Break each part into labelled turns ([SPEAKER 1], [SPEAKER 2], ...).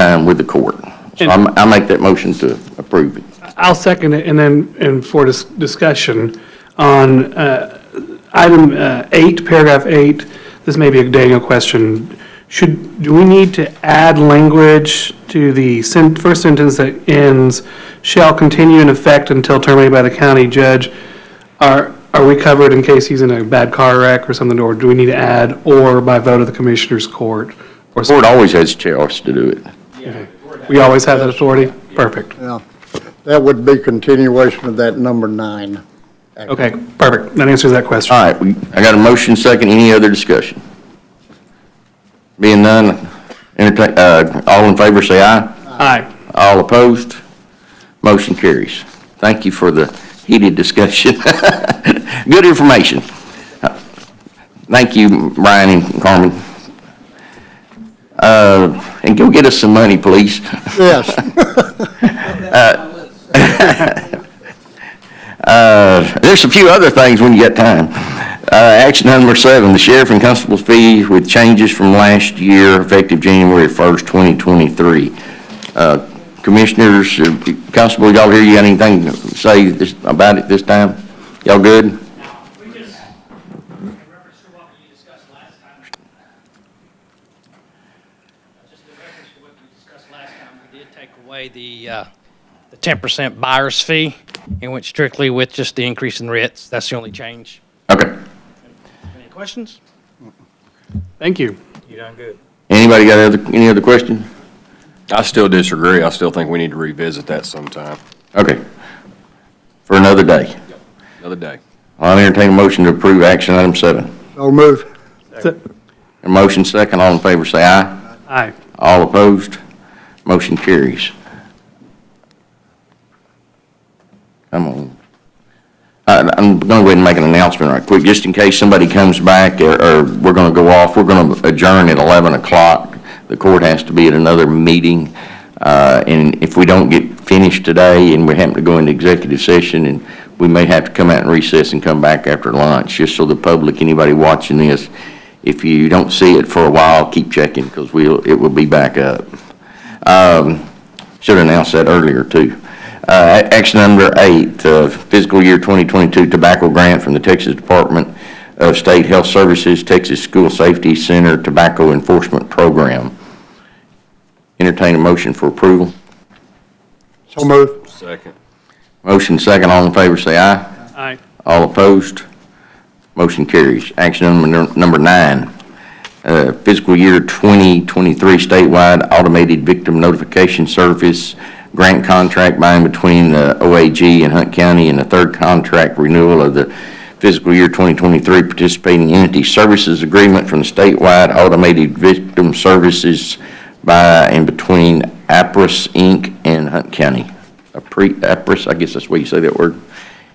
[SPEAKER 1] line um, with the court. So I'm, I make that motion to approve it.
[SPEAKER 2] I'll second it, and then, and for dis- discussion on uh, item uh, eight, paragraph eight, this may be a Daniel question. Should, do we need to add language to the sen- first sentence that ends, "Shall continue in effect until terminated by the county judge"? Are, are we covered in case he's in a bad car wreck or something, or do we need to add, "or by vote of the commissioners' court"? Or,
[SPEAKER 1] Court always has a chance to do it.
[SPEAKER 2] okay. we always have that authority? Perfect.
[SPEAKER 3] Yeah, that would be continuation of that number nine.
[SPEAKER 2] Okay, perfect. That answers that question.
[SPEAKER 1] All right, we, I got a motion second, any other discussion? Being none, entertain, uh, all in favor say aye.
[SPEAKER 2] Aye.
[SPEAKER 1] All opposed, motion carries. Thank you for the heated discussion. Good information. Thank you, Brian and Carmen. Uh, and go get us some money, please.
[SPEAKER 3] Yes,
[SPEAKER 1] There's a few other things when you got time. Uh, action item number seven, the sheriff and constable's fee with changes from last year effective January first, twenty twenty-three. Uh, commissioners, uh, constable, y'all here, you got anything to say this, about it this time? Y'all good?
[SPEAKER 4] We just, in reference to what we discussed last time, uh, just in reference to what we discussed last time, we did take away the, uh, the ten percent buyer's fee and went strictly with just the increase in rates. That's the only change.
[SPEAKER 1] Okay.
[SPEAKER 4] Any questions?
[SPEAKER 2] Thank you.
[SPEAKER 4] You done good.
[SPEAKER 1] Anybody got other, any other question?
[SPEAKER 5] I still disagree. I still think we need to revisit that sometime,
[SPEAKER 1] Okay. For another day.
[SPEAKER 5] another day.
[SPEAKER 1] I'll entertain a motion to approve action item seven.
[SPEAKER 3] so move.
[SPEAKER 1] A motion second, all in favor say aye.
[SPEAKER 2] Aye.
[SPEAKER 1] All opposed? Motion carries. Come on. I- I'm going to go ahead and make an announcement right quick, just in case somebody comes back or or we're going to go off. We're going to adjourn at 11 o'clock. The court has to be at another meeting. uh, And if we don't get finished today and we happen to go into executive session, and we may have to come out and recess and come back after lunch, just so the public, anybody watching this, if you don't see it for a while, keep checking because we'll, it will be back up. Should have announced that earlier, too. Uh, a- Action number eight, uh, fiscal year 2022 tobacco grant from the Texas Department of State Health Services, Texas School Safety Center Tobacco Enforcement Program. Entertain a motion for approval.
[SPEAKER 3] So move.
[SPEAKER 5] Second.
[SPEAKER 1] Motion second, all in favor, say aye.
[SPEAKER 2] Aye.
[SPEAKER 1] All opposed? Motion carries. Action number, number nine, uh, fiscal year 2023 statewide automated victim notification service grant contract by and between uh, the OAG and Hunt County and the third contract renewal of the fiscal year 2023 participating entity services agreement from the statewide automated victim services by and between APRIS Inc. and Hunt County. Apri- APRIS, I guess that's the way you say that word.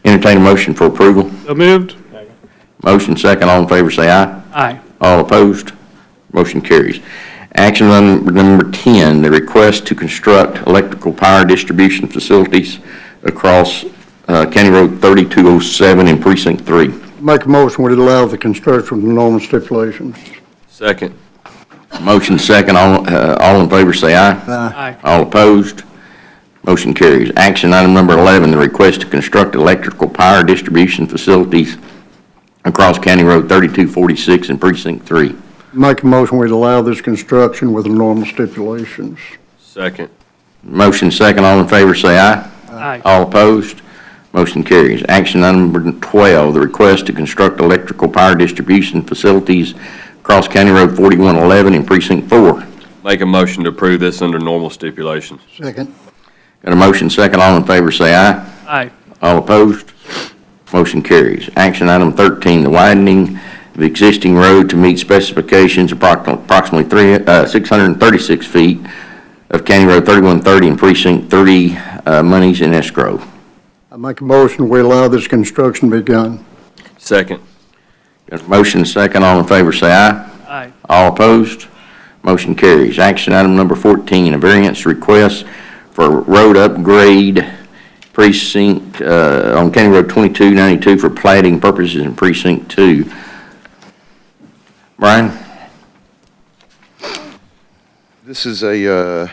[SPEAKER 1] Entertain a motion for approval.
[SPEAKER 2] So moved?
[SPEAKER 1] Motion second, all in favor say aye.
[SPEAKER 2] Aye.
[SPEAKER 1] All opposed? Motion carries. Action item number 10, the request to construct electrical power distribution facilities across uh, County Road 3207 in Precinct 3.
[SPEAKER 3] Make a motion, we allow the construction of normal stipulations.
[SPEAKER 5] Second.
[SPEAKER 1] Motion second, all uh, all in favor say aye.
[SPEAKER 2] Aye.
[SPEAKER 1] All opposed? Motion carries. Action item number 11, the request to construct electrical power distribution facilities across County Road 3246 in Precinct 3.
[SPEAKER 3] Make a motion, we allow this construction with the normal stipulations.
[SPEAKER 5] Second.
[SPEAKER 1] Motion second, all in favor say aye.
[SPEAKER 2] Aye.
[SPEAKER 1] All opposed? Motion carries. Action item number 12, the request to construct electrical power distribution facilities across County Road 4111 in Precinct 4. Got
[SPEAKER 5] Make a motion to approve this under normal stipulations.
[SPEAKER 3] Second.
[SPEAKER 1] a motion second, all in favor say aye.
[SPEAKER 2] Aye.
[SPEAKER 1] All opposed? Motion carries. Action item 13, the widening of existing road to meet specifications approx- approximately three, uh, 636 feet of County Road 3130 in Precinct 3, uh, monies in escrow.
[SPEAKER 3] I make a motion, we allow this construction begun.
[SPEAKER 5] Second.
[SPEAKER 1] Got a motion second, all in favor say aye.
[SPEAKER 2] Aye.
[SPEAKER 1] All opposed? Motion carries. Action item number 14, a variance request for road upgrade precinct, uh, on County Road 2292 for plating purposes in precinct two. Brian?
[SPEAKER 6] This is a uh,